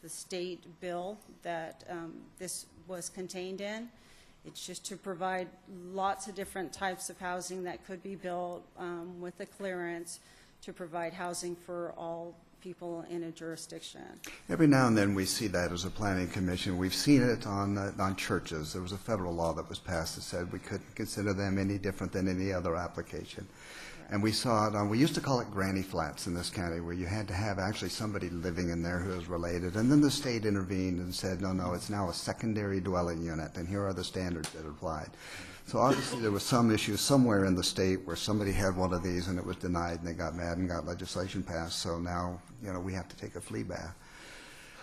the state bill that um, this was contained in. It's just to provide lots of different types of housing that could be built um, with a clearance to provide housing for all people in a jurisdiction. Every now and then, we see that as a planning commission. We've seen it on, uh, on churches. There was a federal law that was passed that said we couldn't consider them any different than any other application. And we saw it on, we used to call it granny flats in this county, where you had to have actually somebody living in there who is related. And then the state intervened and said, no, no, it's now a secondary dwelling unit, and here are the standards that applied. So obviously, there was some issue somewhere in the state where somebody had one of these and it was denied, and they got mad and got legislation passed. So now, you know, we have to take a flea bath.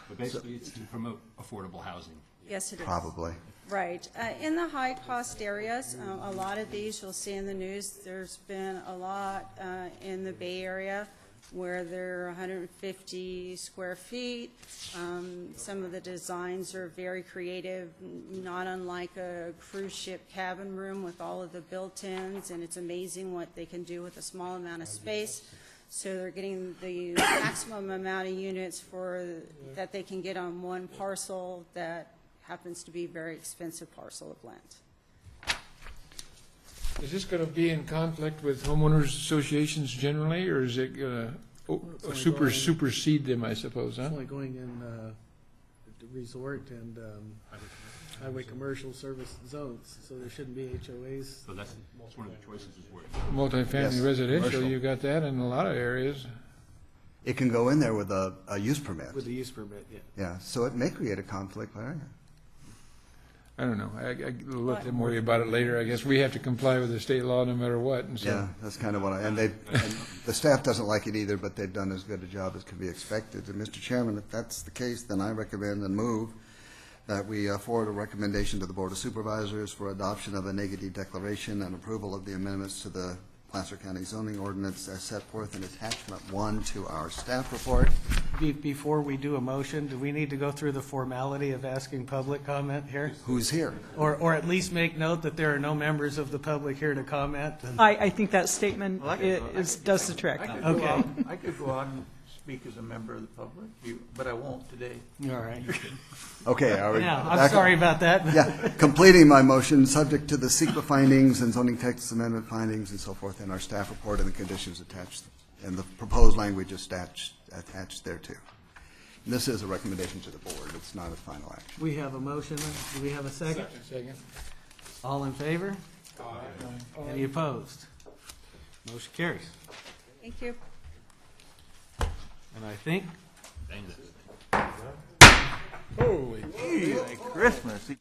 But basically, it's to promote affordable housing. Yes, it is. Probably. Right. Uh, In the high-cost areas, um, a lot of these, you'll see in the news, there's been a lot uh, in the Bay Area where they're 150 square feet. Um, Some of the designs are very creative, n- not unlike a cruise ship cabin room with all of the built-ins, and it's amazing what they can do with a small amount of space. So they're getting the maximum amount of units for, that they can get on one parcel that happens to be a very expensive parcel of land. Is this going to be in conflict with homeowners associations generally, or is it going It's to only super going- supersede them, I suppose, huh? It's only going in uh, the resort and um, highway commercial service zones, so there shouldn't be HOAs. So that's, that's one of the choices is where. Yes, Multifamily residential, commercial. you've got that in a lot of areas. It can go in there with a, a use permit. the use permit, yeah. Yeah, so it may create a conflict, Larry. I don't know, I, I, we'll let them worry about it later, I guess. We have to comply with the state law no matter what, and Yeah, so. that's kind of what I, and they, and the staff doesn't like it either, but they've done as good a job as could be expected. And Mr. Chairman, if that's the case, then I recommend and move that we uh, forward a recommendation to the Board of Supervisors for adoption of a negative declaration and approval of the amendments to the Placer County zoning ordinance as set forth in attachment one to our staff report. Be- Before we do a motion, do we need to go through the formality of asking public comment here? Who's here? Or, or at least make note that there are no members of the public here to comment? I, I think that statement i- is, does the trick. I could go Okay. out, I could go out and speak as a member of the public, you- but I won't today. All right. Okay, are we? Yeah, I'm back- sorry about that. Yeah, completing my motion, subject to the SEQA findings and zoning text amendment findings and so forth in our staff report and the conditions attached, and the proposed language attached, attached thereto. And This is a recommendation to the board, it's not a final action. We have a motion. Do we have a second? Second. All in favor? Any opposed? Motion carries. Thank you. And I think Merry Christmas.